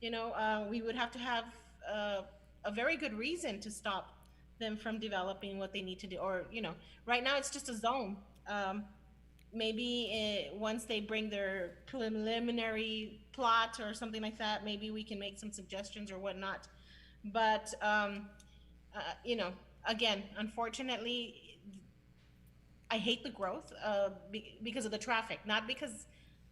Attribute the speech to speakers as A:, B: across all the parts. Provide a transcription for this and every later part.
A: you know, uh, we would have to have uh, a very good reason to stop them from developing what they need to do. Or, you know, right now it's just a zone. Um, maybe eh, once they bring their preliminary plot or something like that, maybe we can make some suggestions or whatnot. But, um, uh, you know, again, unfortunately, I hate the growth uh, be- because of the traffic, not because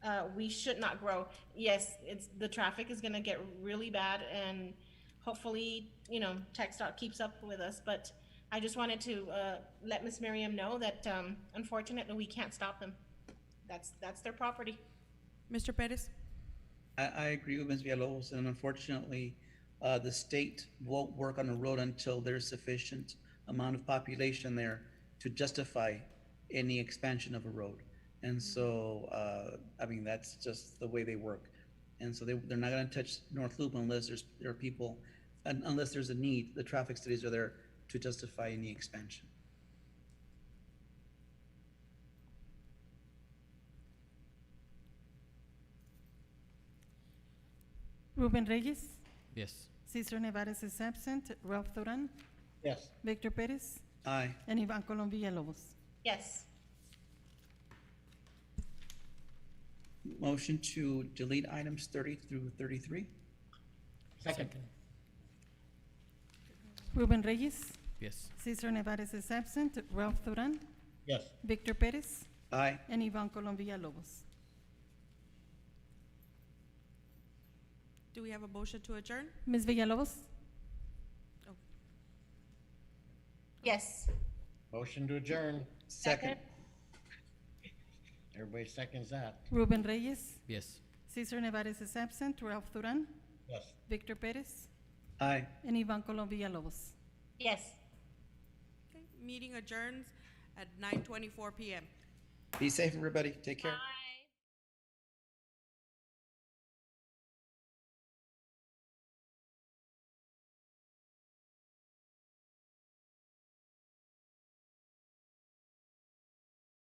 A: uh, we should not grow. Yes, it's the traffic is going to get really bad, and hopefully, you know, TechStop keeps up with us. But I just wanted to uh, let Miss Miriam know that um, unfortunately we can't stop them. That's that's their property.
B: Mr. Pettis?
C: I, I agree with Ms. Villalobos, and unfortunately, uh, the state won't work on a road until there's sufficient amount of population there to justify any expansion of a road. And so, uh, I mean, that's just the way they work. And so they, they're not gonna touch North Loop unless there's, there are people, un- unless there's a need, the traffic studies are there to justify any expansion.
D: Ruben Reyes,
E: Yes.
D: Cesar Nevares is absent, Ralph Duran,
F: yes,
D: Victor Perez,
C: Aye.
D: and Ivan Colom Villalobos.
A: Yes.
C: Motion to delete items thirty through thirty-three?
F: second,
D: Ruben Reyes,
E: Yes.
D: Cesar Nevares is absent, Ralph Duran,
F: yes,
D: Victor Perez,
C: Aye.
D: and Ivan Colom Villalobos.
B: Do we have a motion to adjourn?
D: Ms. Villalobos?
A: Yes.
F: motion to adjourn,
C: Second.
F: everybody seconds that,
D: Ruben Reyes,
E: Yes.
D: Cesar Nevares is absent, Ralph Duran,
F: yes.
D: Victor Perez,
C: Aye.
D: and Ivan Colom Villalobos.
A: Yes.
B: Okay, Meeting adjourns at nine twenty-four PM.
C: Be safe, everybody. Take care.
A: Bye.